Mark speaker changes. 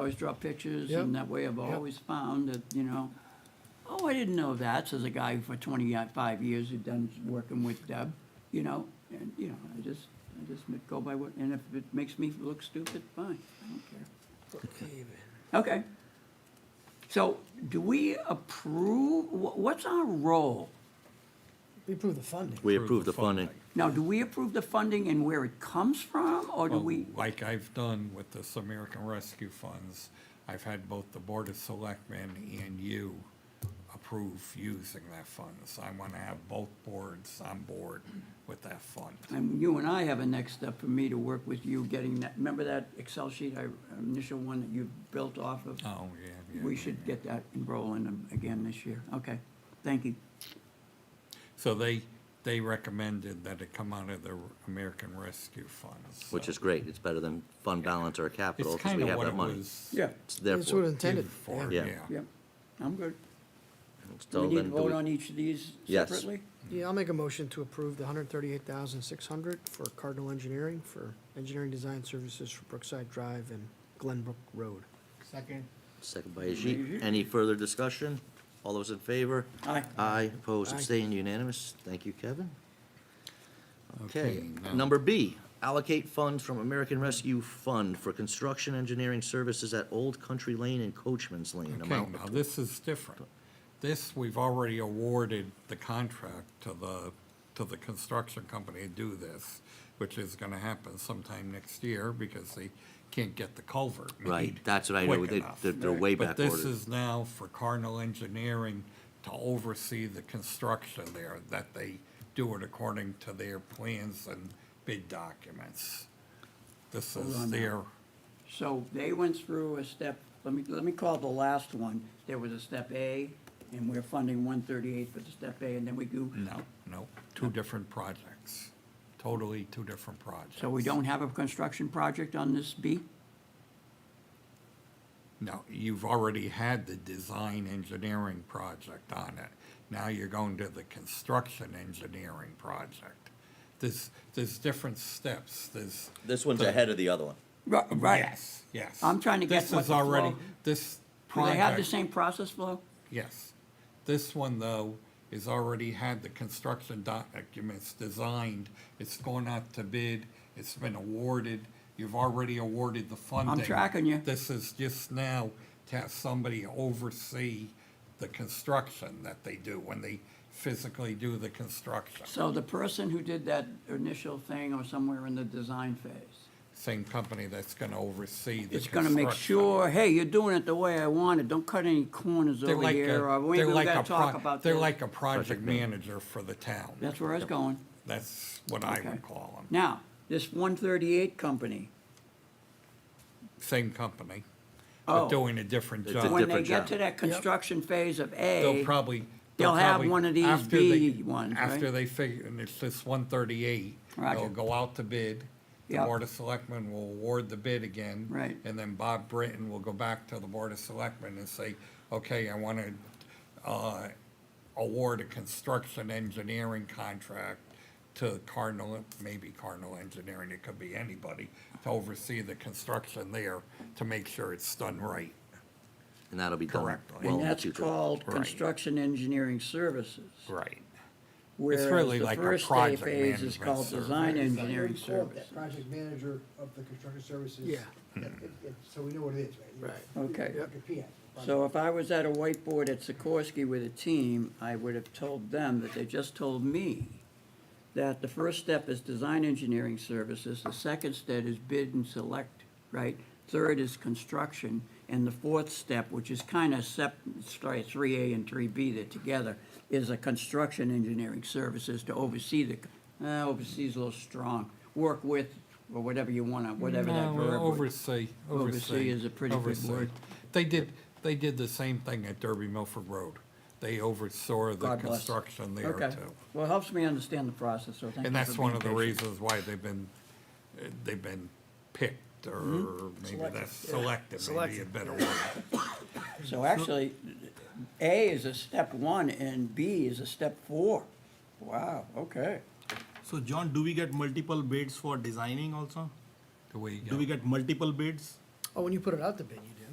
Speaker 1: always draw pictures, and
Speaker 2: Yep.
Speaker 1: that way I've
Speaker 2: Yep.
Speaker 1: always found that, you know, oh, I didn't know that, says a guy who for twenty-five years who done, working with Deb, you know, and, you know, I just, I just go by what, and if it makes me look stupid, fine, I don't care. Okay. So do we approve, wh- what's our role?
Speaker 2: We approve the funding.
Speaker 3: We approve the funding.
Speaker 1: Now, do we approve the funding and where it comes from, or do
Speaker 4: Well,
Speaker 1: we?
Speaker 4: Like I've done with this American Rescue Funds, I've had both the Board of Selectmen and you approve using that fund. So I want to have both boards on board with that fund.
Speaker 1: And you and I have a next step for me to work with you getting that, remember that Excel sheet, I initial one that you built off of?
Speaker 4: Oh, yeah, yeah.
Speaker 1: We
Speaker 4: yeah,
Speaker 1: should
Speaker 4: yeah.
Speaker 1: get that rolling again this year. Okay, thank you.
Speaker 4: So they, they recommended that it come out of the American Rescue Funds.
Speaker 3: Which
Speaker 4: so
Speaker 3: is great. It's better than fund balance or capital
Speaker 4: It's
Speaker 3: because we
Speaker 4: kind of
Speaker 3: have
Speaker 4: what
Speaker 3: that
Speaker 4: it
Speaker 3: money.
Speaker 4: was
Speaker 1: Yeah,
Speaker 3: It's
Speaker 2: That's what it
Speaker 3: therefore,
Speaker 2: intended.
Speaker 4: for,
Speaker 3: Yeah.
Speaker 4: yeah.
Speaker 1: yeah, I'm good. Do
Speaker 3: so
Speaker 1: we need to
Speaker 3: then do
Speaker 1: vote
Speaker 3: we-
Speaker 1: on each of these
Speaker 3: Yes.
Speaker 1: separately?
Speaker 2: Yeah, I'll make a motion to approve the hundred thirty-eight thousand six hundred for Cardinal Engineering for engineering design services for Brookside Drive and Glenbrook Road.
Speaker 5: Second.
Speaker 3: Second by Ajit. Any further discussion? All those in favor?
Speaker 1: Aye.
Speaker 3: Aye, opposed,
Speaker 2: Aye.
Speaker 3: abstained, unanimous. Thank you, Kevin. Okay,
Speaker 4: now-
Speaker 3: number B, allocate funds from American Rescue Fund for construction engineering services at Old Country Lane and Coachman's Lane.
Speaker 4: Okay,
Speaker 3: Amount
Speaker 4: now this is different. This, we've already awarded the contract to the, to the construction company to do this, which is gonna happen sometime next year because they can't get the culvert
Speaker 3: Right,
Speaker 4: made
Speaker 3: that's what I know,
Speaker 4: quick
Speaker 3: they,
Speaker 4: enough.
Speaker 3: they're- they're way
Speaker 4: But
Speaker 3: back
Speaker 4: this
Speaker 3: ordered.
Speaker 4: is now for Cardinal Engineering to oversee the construction there, that they do it according to their plans and bid documents. This
Speaker 1: on
Speaker 4: is
Speaker 1: now.
Speaker 4: their,
Speaker 1: So they went through a step, let me, let me call the last one. There was a step A, and we're funding one thirty-eight for the step A, and then we do.
Speaker 4: no, no, two different projects, totally two different projects.
Speaker 1: So we don't have a construction project on this B?
Speaker 4: No, you've already had the design engineering project on it. Now you're going to the construction engineering project. There's, there's different steps, there's.
Speaker 3: This one's ahead of the other one.
Speaker 1: Right.
Speaker 4: Yes, yes.
Speaker 1: I'm trying to get
Speaker 4: This
Speaker 1: what
Speaker 4: is
Speaker 1: the
Speaker 4: already,
Speaker 1: flow-
Speaker 4: this
Speaker 1: Do they have the
Speaker 4: project,
Speaker 1: same process flow?
Speaker 4: yes. This one, though, is already had the construction documents designed. It's gone out to bid, it's been awarded, you've already awarded the funding.
Speaker 1: tracking you.
Speaker 4: This is just now to have somebody oversee the construction that they do when they physically do the construction.
Speaker 1: So the person who did that initial thing or somewhere in the design phase
Speaker 4: Same company that's gonna oversee the
Speaker 1: is
Speaker 4: construction.
Speaker 1: gonna make sure, hey, you're doing it the way I want it, don't cut any corners
Speaker 4: They're
Speaker 1: over
Speaker 4: like
Speaker 1: here, or
Speaker 4: a,
Speaker 1: we
Speaker 4: they're
Speaker 1: ain't
Speaker 4: like a
Speaker 1: gonna talk
Speaker 4: pro-
Speaker 1: about
Speaker 4: They're
Speaker 1: this.
Speaker 4: like a project manager for the town.
Speaker 1: That's where I was going.
Speaker 4: That's what I
Speaker 1: Okay.
Speaker 4: would call them.
Speaker 1: Now, this one thirty-eight company,
Speaker 4: Same company,
Speaker 1: Oh.
Speaker 4: but doing a different
Speaker 3: It's a
Speaker 4: job.
Speaker 1: when they
Speaker 3: different
Speaker 1: get
Speaker 3: job.
Speaker 1: to that construction phase of
Speaker 4: They'll
Speaker 1: A,
Speaker 4: probably.
Speaker 1: they'll have
Speaker 4: probably-
Speaker 1: one of these
Speaker 4: after they-
Speaker 1: B ones, right?
Speaker 4: After they figure, and it's this one thirty-eight,
Speaker 1: Roger.
Speaker 4: they'll go out to bid. The
Speaker 1: Yep.
Speaker 4: Board of Selectmen will award the bid again.
Speaker 1: Right.
Speaker 4: And then Bob Britton will go back to the Board of Selectmen and say, okay, I want to, uh, award a construction engineering contract to Cardinal, maybe Cardinal Engineering, it could be anybody, to oversee the construction there to make sure it's done right.
Speaker 3: And that'll be done
Speaker 4: Correct.
Speaker 3: well
Speaker 1: and
Speaker 3: in the
Speaker 1: that's
Speaker 3: future.
Speaker 1: called
Speaker 4: Right.
Speaker 1: construction engineering services.
Speaker 4: Right.
Speaker 1: Whereas
Speaker 4: really
Speaker 1: the
Speaker 4: like a
Speaker 1: first day
Speaker 4: project
Speaker 1: phase is
Speaker 4: management
Speaker 1: called
Speaker 4: service.
Speaker 1: design engineering
Speaker 5: It's called
Speaker 1: service.
Speaker 5: Project manager of the construction services.
Speaker 2: Yeah.
Speaker 5: It- it- it- So we know what it is, right?
Speaker 2: Right.
Speaker 1: Okay.
Speaker 5: Like a PM.
Speaker 1: So if I was at a whiteboard at Sikorsky with a team, I would have told them that they just told me that the first step is design engineering services, the second step is bid and select, right? Third is construction, and the fourth step, which is kind of sep, sorry, three A and three B, they're together, is a construction engineering services to oversee the, uh, oversee's a little strong, work with, or whatever you want, to whatever that
Speaker 4: No,
Speaker 1: verb would-
Speaker 4: Oversee,
Speaker 1: Oversee
Speaker 4: oversee.
Speaker 1: is a pretty big
Speaker 4: oversee.
Speaker 1: word.
Speaker 4: They did, they did the same thing at Derby Milford Road. They oversaw the
Speaker 1: God bless.
Speaker 4: construction there
Speaker 1: Okay,
Speaker 4: too.
Speaker 1: well, it helps me understand the process, so thank you for
Speaker 4: And that's one of the
Speaker 1: being patient.
Speaker 4: reasons why they've been, uh, they've been picked or
Speaker 1: Mm-hmm.
Speaker 4: maybe that's selected, maybe a better word.
Speaker 1: So actually, A is a step one and B is a step four. Wow, okay.
Speaker 6: So John, do we get multiple bids for designing also?
Speaker 4: Do we,
Speaker 6: Do we
Speaker 4: uh,
Speaker 6: get multiple bids?
Speaker 2: Oh, when you put it out the bid, you